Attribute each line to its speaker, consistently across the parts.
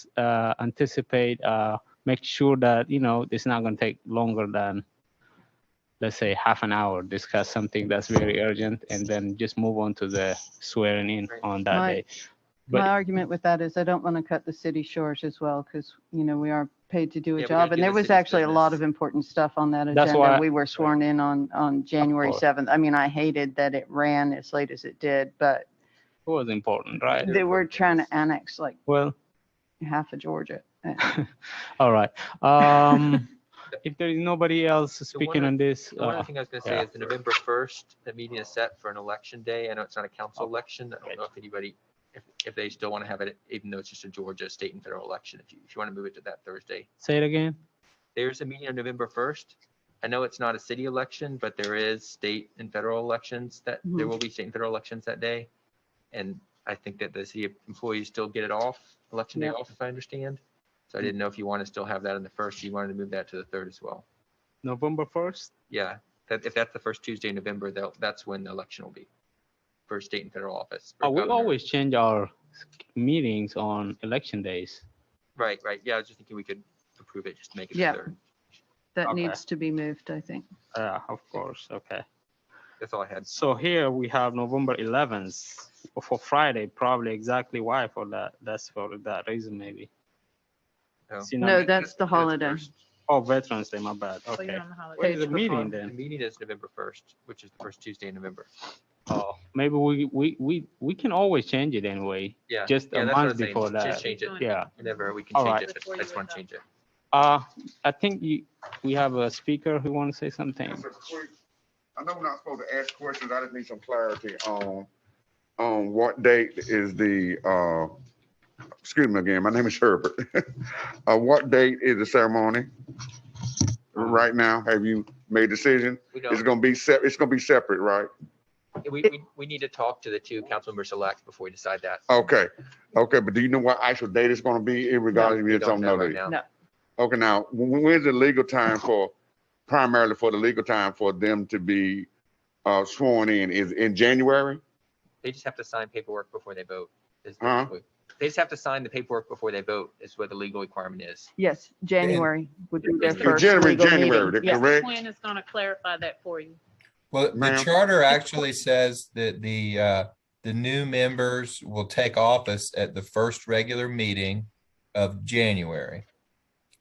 Speaker 1: just uh, anticipate, uh, make sure that you know it's not going to take longer than let's say half an hour. Discuss something that's very urgent, and then just move on to the swearing in on that
Speaker 2: My-
Speaker 1: day.
Speaker 2: My
Speaker 1: But-
Speaker 2: argument with that is I don't want to cut the city short as well, because, you know, we are paid to do
Speaker 3: Yeah,
Speaker 2: a
Speaker 3: we
Speaker 2: job.
Speaker 3: gotta
Speaker 2: And
Speaker 3: do
Speaker 2: there
Speaker 3: the
Speaker 2: was
Speaker 3: city's
Speaker 2: actually a lot of important stuff on that
Speaker 1: That's
Speaker 2: agenda.
Speaker 1: why-
Speaker 2: We were sworn in on, on January
Speaker 1: course.
Speaker 2: 7th. I mean, I hated that it ran as late as it did, but
Speaker 1: It was important, right?
Speaker 2: they were trying to annex like
Speaker 1: Well,
Speaker 2: half of Georgia. Uh,
Speaker 1: all right. Um, if there is nobody else speaking on
Speaker 3: one-
Speaker 1: this,
Speaker 3: The one
Speaker 1: uh,
Speaker 3: other thing I was gonna
Speaker 1: yeah.
Speaker 3: say is the November first, the meeting is set for an election day. I know it's not a council election. I
Speaker 1: Right.
Speaker 3: don't know if anybody, if, if they still want to have it, even though it's just a Georgia state and federal election, if you, if you want to move it to that Thursday.
Speaker 1: say it again.
Speaker 3: There's a meeting on November first. I know it's not a city election, but there is state and federal elections that, there
Speaker 2: Mhm.
Speaker 3: will be state and federal elections that day. And I think that the city employees still get it off, election day
Speaker 2: Yep.
Speaker 3: off, if I understand. So I didn't know if you want to still have that on the first, you wanted to move that to the third as well.
Speaker 1: November first.
Speaker 3: Yeah, that, if that's the first Tuesday in November, that, that's when the election will be for state and federal office. for
Speaker 1: Oh, we
Speaker 3: governor.
Speaker 1: always change our meetings on election days.
Speaker 3: Right, right. Yeah, I was just thinking we could approve it, just make it the
Speaker 2: Yeah.
Speaker 3: third.
Speaker 2: That
Speaker 1: Okay.
Speaker 2: needs to be moved, I think.
Speaker 1: Uh, of course, okay.
Speaker 3: That's all I had.
Speaker 1: So here we have November 11th for Friday, probably exactly why for that. That's for that reason, maybe.
Speaker 3: Oh.
Speaker 1: See, now-
Speaker 2: No, that's the
Speaker 3: That's
Speaker 2: holiday.
Speaker 3: first.
Speaker 1: Oh, Veterans Day, my bad.
Speaker 4: Oh, you're
Speaker 1: Okay.
Speaker 4: on the
Speaker 1: What
Speaker 4: holiday.
Speaker 1: is the meeting
Speaker 3: The
Speaker 1: then?
Speaker 3: meeting is November first, which is the first Tuesday in November.
Speaker 1: Oh, maybe we, we, we, we can always change it anyway.
Speaker 3: Yeah.
Speaker 1: Just
Speaker 3: yeah,
Speaker 1: a
Speaker 3: that's what I
Speaker 1: month
Speaker 3: was saying.
Speaker 1: before
Speaker 3: Just-
Speaker 1: that.
Speaker 3: Just change it
Speaker 1: Yeah.
Speaker 3: whenever we can
Speaker 1: All
Speaker 3: change
Speaker 1: right.
Speaker 3: it.
Speaker 4: Before
Speaker 3: I
Speaker 4: you
Speaker 3: just want
Speaker 4: wake
Speaker 3: to change
Speaker 4: up.
Speaker 3: it.
Speaker 1: Uh, I think you, we have a speaker who wants to say something.
Speaker 5: Just a quick- I know we're not supposed to ask questions, I just need some clarity on, on what date is the, uh, excuse me again, my name is Herbert. Uh, what date is the ceremony? Right now, have you made a decision?
Speaker 3: We
Speaker 5: It's
Speaker 3: don't,
Speaker 5: gonna be sep, it's gonna be separate, right?
Speaker 3: we, we, we need to talk to the two council members elect before we decide that.
Speaker 5: Okay, okay, but do you know what actual date it's gonna be in regards to
Speaker 3: We
Speaker 5: you don't know
Speaker 3: right
Speaker 5: that?
Speaker 3: now.
Speaker 2: No.
Speaker 5: Okay, now, when, when's the legal time for, primarily for the legal time for them to be, uh, sworn in, is in January?
Speaker 3: They just have to sign paperwork before they vote. is
Speaker 5: Huh?
Speaker 3: basically- They just have to sign the paperwork before they vote is what the legal requirement is.
Speaker 2: Yes, January would be their
Speaker 3: In
Speaker 2: first
Speaker 5: January,
Speaker 2: legal
Speaker 5: January,
Speaker 2: meeting.
Speaker 5: the
Speaker 2: Yeah.
Speaker 5: correct?
Speaker 4: Plan is going to clarify that for you.
Speaker 6: Well, the
Speaker 5: Ma'am?
Speaker 6: charter actually says that the, uh, the new members will take office at the first regular meeting of January.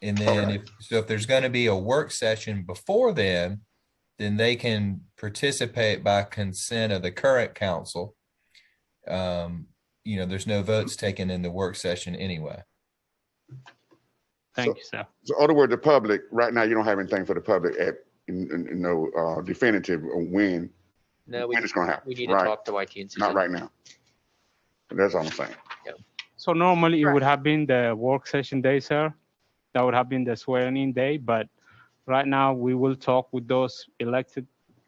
Speaker 6: And then if, so if there's going to be a work session before then, then they can participate by consent of the current council. Um, you know, there's no votes taken in the work session anyway.
Speaker 1: Thank you, sir.
Speaker 5: So other word, the public, right now, you don't have anything for the public at, in- in- in no uh, definitive of when,
Speaker 3: No, we,
Speaker 5: when it's gonna
Speaker 3: we need
Speaker 5: happen,
Speaker 3: to
Speaker 5: right?
Speaker 3: talk to YT and Susan.
Speaker 5: Not right now. That's all I'm saying.
Speaker 1: So normally it would have been the work session day, sir. That would have been the swearing in day, but right now we will talk with those elected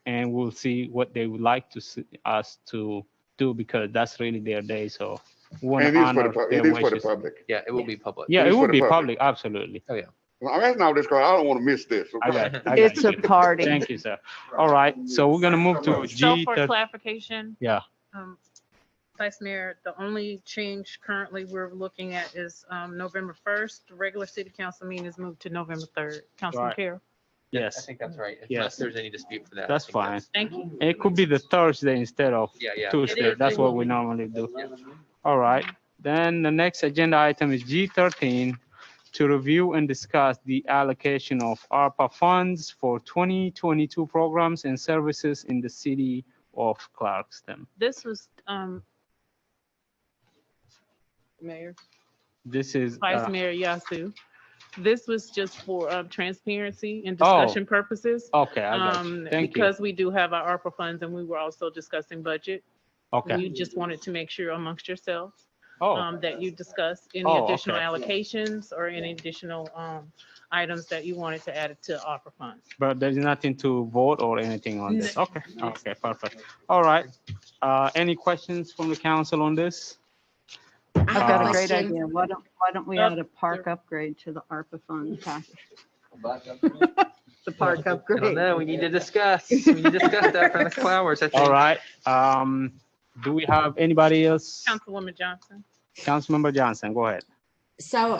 Speaker 1: and we'll see what they would like to see us to do because that's really their day, so. we wanna
Speaker 5: And it is for
Speaker 1: honor
Speaker 5: the, pub-
Speaker 1: their
Speaker 5: it is for the
Speaker 1: wishes.
Speaker 5: public.
Speaker 3: Yeah, it will be public.
Speaker 1: Yeah,
Speaker 5: It is
Speaker 1: it
Speaker 5: for
Speaker 1: would
Speaker 5: the
Speaker 1: be
Speaker 5: public.
Speaker 1: public, absolutely.
Speaker 5: Well, I'm asking all this because I don't want to miss this.
Speaker 1: I got, it, I got
Speaker 2: It's a
Speaker 1: you.
Speaker 2: party.
Speaker 1: Thank you, sir. All right, so we're gonna move to
Speaker 4: So
Speaker 1: G.
Speaker 4: for
Speaker 1: thir-
Speaker 4: clarification.
Speaker 1: Yeah.
Speaker 4: um, Vice Mayor, the only change currently we're looking at is um, November 1st. The regular city council meeting is moved to November 3rd. Councilman
Speaker 1: Right.
Speaker 4: Carroll,
Speaker 3: I
Speaker 1: Yes,
Speaker 3: think that's right.
Speaker 1: Yes.
Speaker 3: Unless there's any dispute for that. I
Speaker 1: That's
Speaker 3: think
Speaker 1: fine.
Speaker 4: thank you.
Speaker 1: It could be the Thursday instead of
Speaker 3: Yeah, yeah.
Speaker 1: Tuesday.
Speaker 4: is
Speaker 1: That's what
Speaker 4: Tuesday.
Speaker 1: we normally do.
Speaker 3: Yeah.
Speaker 1: All right, then the next agenda item is G thirteen, to review and discuss the allocation of ARPA funds for twenty twenty-two programs and services in the city of Clarkston.
Speaker 4: This was, um, Mayor,
Speaker 1: This is,
Speaker 4: Vice
Speaker 1: uh,
Speaker 4: Mayor Yasu. This was just for um, transparency and
Speaker 1: Oh.
Speaker 4: discussion purposes.
Speaker 1: okay, I got
Speaker 4: Um,
Speaker 1: you. Thank you.
Speaker 4: because we do have our ARPA funds and we were also discussing budget.
Speaker 1: Okay.
Speaker 4: You just wanted to make sure amongst yourselves
Speaker 1: Oh,
Speaker 4: um, that you discussed any
Speaker 1: Oh,
Speaker 4: additional
Speaker 1: okay.
Speaker 4: allocations or any additional um, items that you wanted to add to ARPA funds.
Speaker 1: but there's nothing to vote or anything on this. Okay, okay, perfect. All right. Uh, any questions from the council on this?
Speaker 2: I've got
Speaker 1: Uh,
Speaker 2: a great
Speaker 7: Um, question.
Speaker 2: idea. Why don't, why don't we
Speaker 4: Yep.
Speaker 2: add a park upgrade to the ARPA fund package? The park
Speaker 3: I don't
Speaker 2: upgrade.
Speaker 3: know. We need to discuss. We need to discuss that for the next couple hours. I think.
Speaker 1: All right, um, do we have anybody else?
Speaker 4: Councilwoman Johnson?
Speaker 1: Councilmember Johnson, go ahead.
Speaker 7: So